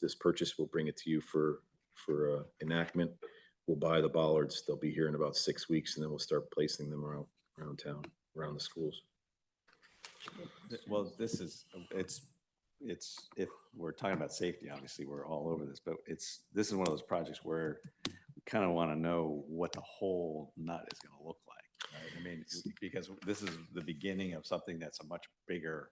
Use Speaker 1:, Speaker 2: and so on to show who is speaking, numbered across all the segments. Speaker 1: this purchase. We'll bring it to you for, for uh, enactment. We'll buy the bollards. They'll be here in about six weeks and then we'll start placing them around, around town, around the schools.
Speaker 2: Th- Well, this is, it's, it's, if we're talking about safety, obviously, we're all over this, but it's, this is one of those projects where we kind of want to know what the whole nut is going to look like. right? I mean, it's- because this is the beginning of something that's a much bigger,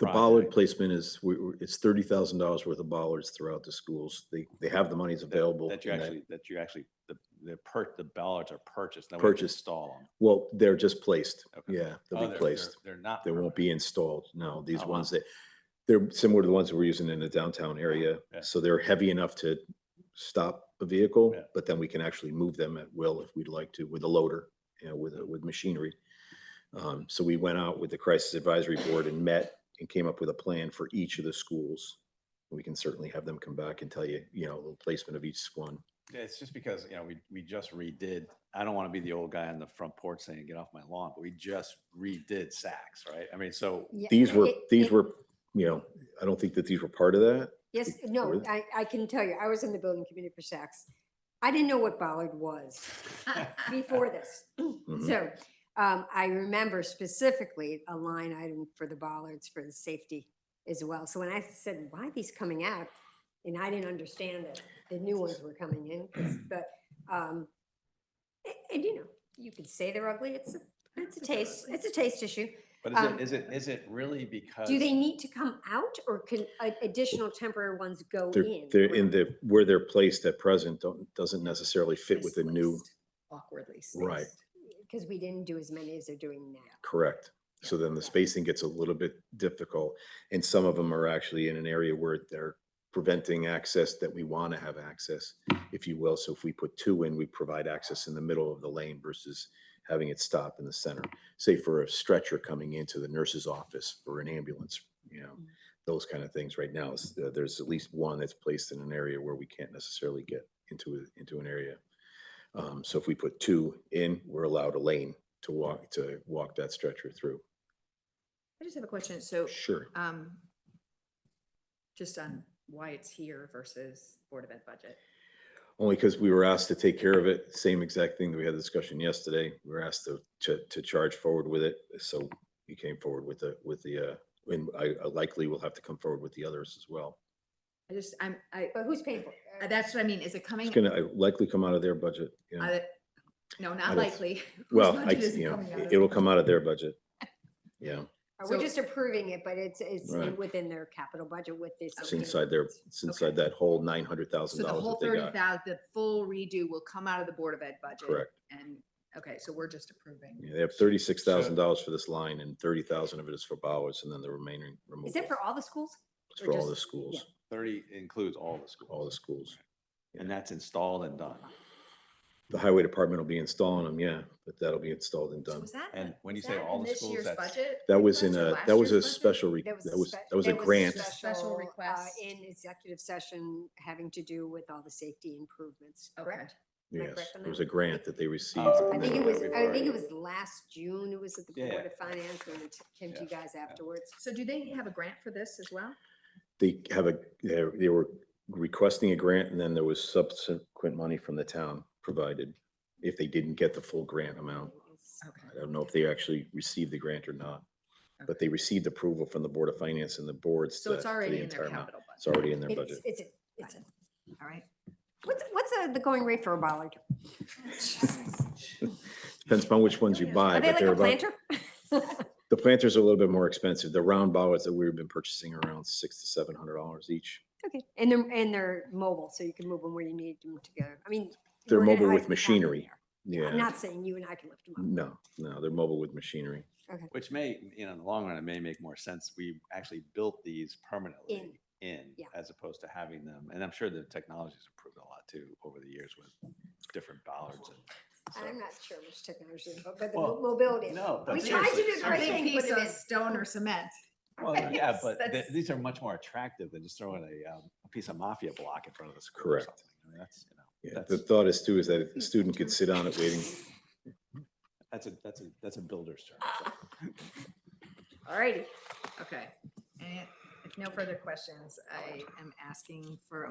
Speaker 1: The bollard
Speaker 2: Project.
Speaker 1: placement is, we, we- it's thirty thousand dollars worth of bollards throughout the schools. They, they have the monies available.
Speaker 2: that you
Speaker 1: and
Speaker 2: actually, that you actually, the, the per, the ballards are purchased. then we have to
Speaker 1: Purchased.
Speaker 2: Install them.
Speaker 1: Well, they're just placed.
Speaker 2: Okay.
Speaker 1: Yeah,
Speaker 2: Oh,
Speaker 1: they'll
Speaker 2: they're-
Speaker 1: be
Speaker 2: they're-
Speaker 1: placed.
Speaker 2: They're not.
Speaker 1: They won't
Speaker 2: permanent.
Speaker 1: be installed. No, these
Speaker 2: Oh,
Speaker 1: ones
Speaker 2: wow.
Speaker 1: that, they're similar to the ones that we're using in the downtown area.
Speaker 2: Yeah.
Speaker 1: So they're heavy enough to stop a vehicle,
Speaker 2: Yeah.
Speaker 1: but then we can actually move them at will if we'd like to with a loader, you know, with, a- with machinery. Um, so we went out with the crisis advisory board and met and came up with a plan for each of the schools. We can certainly have them come back and tell you, you know, the placement of each one.
Speaker 2: Yeah, It's just because, you know, we, we just redid, I don't want to be the old guy on the front porch saying, get off my lawn, but we just redid Saks, right? I mean, so
Speaker 3: Yeah,
Speaker 1: These were,
Speaker 3: it-
Speaker 1: these
Speaker 3: it-
Speaker 1: were, you know, I don't think that these were part of that.
Speaker 3: Yes, no,
Speaker 1: were-
Speaker 3: I, I can tell you, I was in the building committee for Saks. I didn't know what bollard was before this.
Speaker 1: Mhm.
Speaker 3: So um, I remember specifically a line item for the bollards for the safety as well. So when I said, why are these coming out? And I didn't understand that the new ones were coming in, 'cause- but, um, a- and you know, you could say they're ugly. It's, a it's a taste, it's a taste issue.
Speaker 2: But is
Speaker 3: Um,
Speaker 2: it, is it, is it really because?
Speaker 3: Do they need to come out or can a- additional temporary ones go
Speaker 1: They're,
Speaker 3: in?
Speaker 1: they're in
Speaker 3: around?
Speaker 1: the, where they're placed at present, don't, doesn't necessarily fit with the new,
Speaker 4: Misplaced, Awkwardly spaced.
Speaker 1: Right.
Speaker 3: because we didn't do as many as they're doing now.
Speaker 1: correct. So then the spacing gets a little bit difficult, and some of them are actually in an area where they're preventing access that we want to have access, if you will. So if we put two in, we provide access in the middle of the lane versus having it stop in the center. Say for a stretcher coming into the nurse's office for an ambulance, you know,
Speaker 4: Mm.
Speaker 1: those kind of things right now. is, uh, There's at least one that's placed in an area where we can't necessarily get into, a- into an area. Um, So if we put two in, we're allowed a lane to walk, to walk that stretcher through.
Speaker 4: I just have a question. So,
Speaker 1: Sure.
Speaker 4: um, just on why it's here versus Board of Ed budget.
Speaker 1: Only because we were asked to take care of it, same exact thing that we had a discussion yesterday. We were asked to, to, to charge forward with it. So we came forward with the, with the, uh, and I I likely will have to come forward with the others as well.
Speaker 4: I just, I'm, I,
Speaker 3: But who's paying for it?
Speaker 4: uh, that's what I mean. Is it coming?
Speaker 1: It's gonna I likely come out of their budget, you know.
Speaker 4: out of- No,
Speaker 1: out
Speaker 4: not
Speaker 1: of-
Speaker 4: likely. Uh, Whose
Speaker 1: Well, I,
Speaker 4: budget is it
Speaker 1: you know,
Speaker 4: coming out
Speaker 1: it-
Speaker 4: of?
Speaker 1: it'll come out of their budget. Yeah,
Speaker 3: Uh, We're
Speaker 4: So-
Speaker 3: just approving it, but it's, it's
Speaker 1: Right.
Speaker 3: within their capital budget with this.
Speaker 1: it's
Speaker 3: new-
Speaker 1: inside their, it's inside that whole nine hundred
Speaker 4: So
Speaker 1: thousand
Speaker 4: the
Speaker 1: dollars
Speaker 4: whole
Speaker 1: that they
Speaker 4: thirty
Speaker 1: got.
Speaker 4: thousand, the full redo will come out of the Board of Ed budget.
Speaker 1: Correct.
Speaker 4: And, okay, so we're just approving.
Speaker 1: Yeah, They have thirty-six thousand dollars for this line and thirty thousand of it is for Bowers and then the remaining removal.
Speaker 3: Is it for all the schools?
Speaker 1: It's
Speaker 3: or
Speaker 1: for all
Speaker 3: just-
Speaker 1: the schools,
Speaker 2: Thirty includes all the schools.
Speaker 1: all the schools.
Speaker 2: And that's installed and done.
Speaker 1: The highway department will be installing them, yeah, but that'll be installed and
Speaker 4: So
Speaker 1: done.
Speaker 4: was that
Speaker 2: And
Speaker 4: in-
Speaker 2: when you
Speaker 4: was
Speaker 2: say
Speaker 4: that
Speaker 2: all
Speaker 4: in
Speaker 2: the
Speaker 4: this
Speaker 2: schools,
Speaker 4: year's
Speaker 2: that's-
Speaker 4: budget
Speaker 1: That was in
Speaker 4: request or
Speaker 1: a,
Speaker 4: last
Speaker 1: that was a
Speaker 4: year's budget?
Speaker 1: special, re- that was,
Speaker 3: spe-
Speaker 1: that was a
Speaker 3: there
Speaker 1: grant.
Speaker 4: spec-
Speaker 3: special,
Speaker 4: Special
Speaker 3: uh,
Speaker 4: request.
Speaker 3: In executive session, having to do with all the safety improvements,
Speaker 4: Okay.
Speaker 3: correct? Am I
Speaker 1: Yes,
Speaker 3: correct on
Speaker 1: it was
Speaker 3: that? Oh,
Speaker 1: a grant that they received.
Speaker 2: I
Speaker 3: I
Speaker 1: and
Speaker 3: think it
Speaker 1: then-
Speaker 2: Yeah,
Speaker 3: was,
Speaker 2: we've
Speaker 3: I think
Speaker 2: already-
Speaker 3: it was last June. It was at the
Speaker 2: Yeah.
Speaker 3: Board of Finance when we t- came to you guys afterwards.
Speaker 4: So do they have a grant for this as well?
Speaker 1: They have a, they they were requesting a grant and then there was subsequent money from the town provided if they didn't get the full grant amount.
Speaker 4: Okay.
Speaker 1: I don't know if they actually received the grant or not, but they received approval from the Board of Finance and the boards.
Speaker 4: So it's
Speaker 1: to- for the
Speaker 4: already in
Speaker 1: entire
Speaker 4: their
Speaker 1: amount.
Speaker 4: capital budget.
Speaker 1: It's already in their
Speaker 3: It's,
Speaker 1: budget.
Speaker 3: it's, a- it's, a-
Speaker 4: All right.
Speaker 3: what's, what's uh, the going rate for a bollard?
Speaker 1: Depends upon which ones you buy.
Speaker 3: Are they
Speaker 1: but
Speaker 3: like
Speaker 1: they're
Speaker 3: a
Speaker 1: about-
Speaker 3: planter?
Speaker 1: The planters are a little bit more expensive. The round bollards that we've been purchasing are around six to seven hundred dollars each.
Speaker 3: Okay, and they're, and they're mobile, so you can move them where you need them to go. I mean.
Speaker 1: They're
Speaker 3: we're gonna
Speaker 1: mobile
Speaker 3: have
Speaker 1: with
Speaker 3: to have them
Speaker 1: machinery.
Speaker 3: there. I'm
Speaker 1: Yeah,
Speaker 3: not saying you and I can lift them up.
Speaker 1: no, no, they're mobile with machinery.
Speaker 2: Which may, you know, in the long run, it may make more sense. We actually built these permanently in,
Speaker 3: yeah.
Speaker 2: as opposed to having them. And I'm sure the technology's improved a lot too over the years with different bollards. and so-
Speaker 3: I'm not sure which technology, but but the
Speaker 2: Well,
Speaker 3: mo- mobility.
Speaker 2: No.
Speaker 3: We
Speaker 2: but
Speaker 3: tried to
Speaker 2: seriously,
Speaker 3: do the right
Speaker 2: seriously.
Speaker 3: thing,
Speaker 4: Big
Speaker 3: put
Speaker 4: piece
Speaker 3: it
Speaker 4: of
Speaker 3: in.
Speaker 4: stone or cement.
Speaker 2: Well, yeah,
Speaker 4: Yes,
Speaker 2: but th-
Speaker 4: that's-
Speaker 2: these are much more attractive than just throwing a, um, a piece of mafia block in front of the school. or
Speaker 1: Correct.
Speaker 2: something. I mean, That's, you know,
Speaker 1: Yeah, the
Speaker 2: That's-
Speaker 1: thought is too, is that a student could sit on it waiting.
Speaker 2: that's a, that's a, that's a builder's term. so.
Speaker 4: All righty. Okay. And if no further questions, I am asking for a